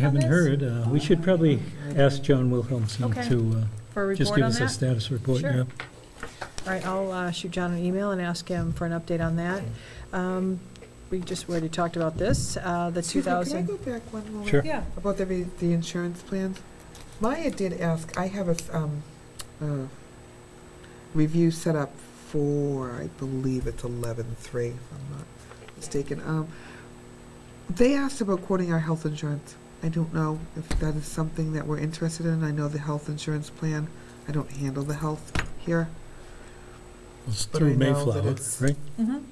I haven't this? heard. Uh, We should probably ask John Wilhelmsen Okay. to for a uh, just report give on us a that? status report. Sure. yeah. All right, I'll uh, shoot John an email and ask him for an update on that. Um, We just already talked about this, uh, the Excuse me, 2000. Can I go back one moment? Sure. Yeah, About the, re- the insurance plans? Maya did ask, I have a, s- um, uh, review set up for, I believe it's eleven-three, if I'm not mistaken. Um, they asked about quoting our health insurance. I don't know if that is something that we're interested in. I know the health insurance plan, I don't handle the health here, It's But I through know that Mayflower, it's- right? mhm.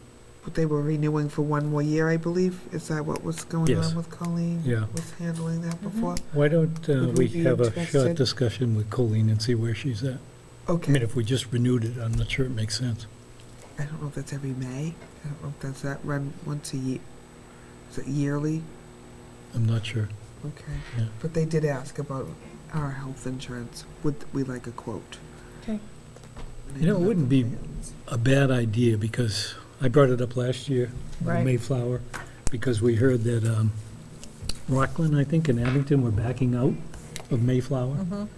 but they were renewing for one more year, I believe. Is that what was going Yes. on with Colleen? Yeah. Was handling that before? Why don't uh, Would we we be have a short interested? discussion with Colleen and see where she's at? I Okay. mean, if we just renewed it, I'm not sure it makes sense. I don't know if that's every May. I don't know if that's that run once a year. Is it yearly? I'm not sure. Okay. Yeah. But they did ask about our health insurance. Would we like a quote? Okay. And I You know, it that's wouldn't be- something that's- A bad idea, because I brought it up last year, Right. on Mayflower, because we heard that um, Rockland, I think, and Abington were backing out of Mayflower. Mhm.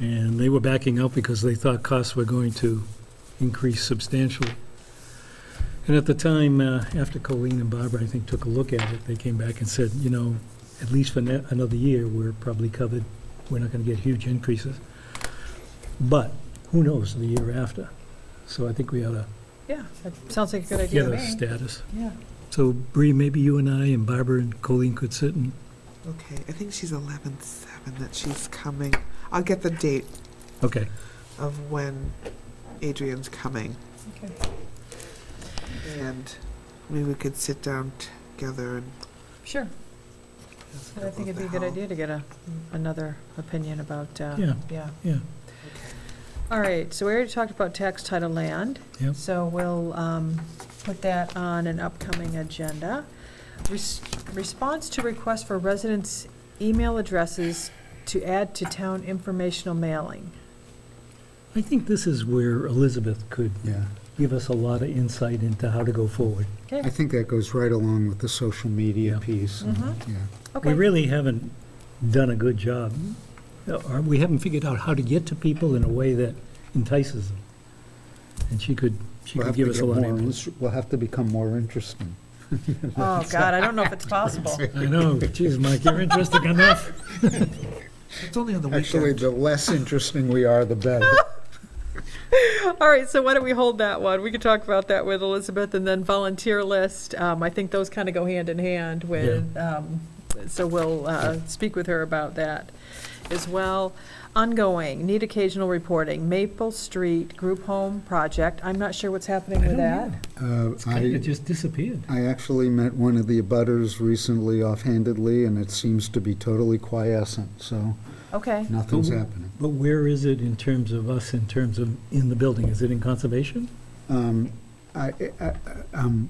And they were backing out because they thought costs were going to increase substantially. And at the time, uh, after Colleen and Barbara, I think, took a look at it, they came back and said, you know, at least for ne- another year, we're probably covered. We're not going to get huge increases. But who knows the year after? So I think we ought to yeah, that sounds like a good idea get to a me. status. Yeah, So Bree, maybe you and I and Barbara and Colleen could sit and Okay. I think she's eleven seven that she's coming. I'll get the date Okay, of when Adrian's coming. okay. And maybe we could sit down together and. Sure, ask I think about it'd the be a good health. idea to get a, another opinion about, uh, Yeah. yeah. yeah. All right, so we already talked about tax title land. Yep. So we'll um, put that on an upcoming agenda. Res- Response to request for residents' email addresses to add to town informational mailing. I think this is where Elizabeth could Yeah, give us a lot of insight into how to go forward. I Okay, think that goes right along with the social media Yeah. piece. Mhm. Yeah, We okay, really haven't done a good job, or we haven't figured out how to get to people in a way that entices them. And she could, she We'll could have give to us a get lot of more input. inter- We'll have to become more interesting. oh, God, I don't know if it's possible. I know, Jeez, Mike, you're interesting enough. It's only on the weekend. Actually, the less interesting we are, the better. All right, so why don't we hold that one? We could talk about that with Elizabeth, and then volunteer list, um, I think those kind of go hand in hand with, um, so we'll, uh, speak with her about that as well. Ongoing, need occasional reporting, Maple Street Group Home Project, I'm not sure what's happening with that. Uh, It I, just disappeared. I actually met one of the abutters recently offhandedly, and it seems to be totally quiescent, so Okay, nothing's Who- happening. But where is it in terms of us, in terms of in the building? Is it in conservation? Um, I, I- I- um,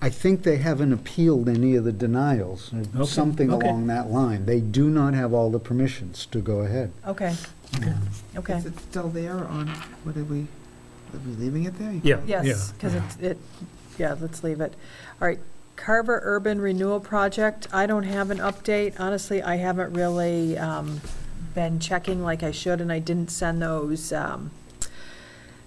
I think they haven't appealed any of the denials, or Okay, something okay. along that line. They do not have all the permissions to go ahead. okay, Okay. okay, Is it still there or on, what did we, are we leaving it there? Yeah. yes, because it, it, yeah, let's leave it. All right, Carver Urban Renewal Project, I don't have an update. Honestly, I haven't really um, been checking like I should, and I didn't send those, um,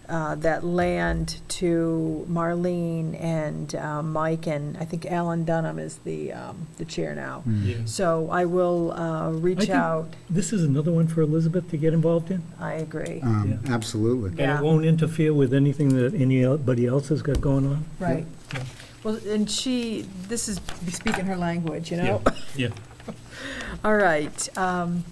uh, that land to Marlene and uh, Mike, and I think Alan Dunham is the, um, the chair now. So I will uh, I reach think- out. This is another one for Elizabeth to get involved in? I agree. Um, Absolutely. And Yeah. it won't interfere with anything that anybody else has got going on? Right. Yeah. Well, and she, this is speaking her language, you know? Yeah. All right. um,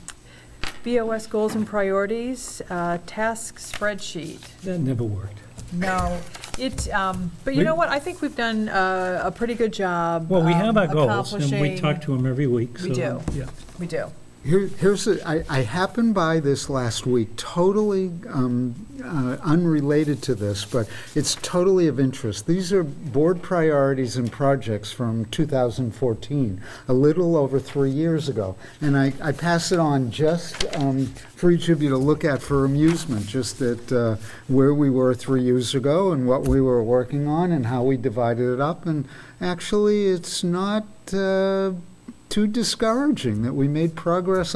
BOS goals and priorities, uh, task spreadsheet. That never worked. No, it, um, but you know We- what? I think we've done uh, a pretty good job. Well, we have um, our goals, and we accomplishing- talk to them every week, so. We do. Yeah. We do. Here, here's, a- I, I happened by this last week, totally um, uh, unrelated to this, but it's totally of interest. These are board priorities and projects from 2014, a little over three years ago. And I, I pass it on just um, for each of you to look at for amusement, just at uh, where we were three years ago and what we were working on and how we divided it up. And actually, it's not uh, too discouraging that we made progress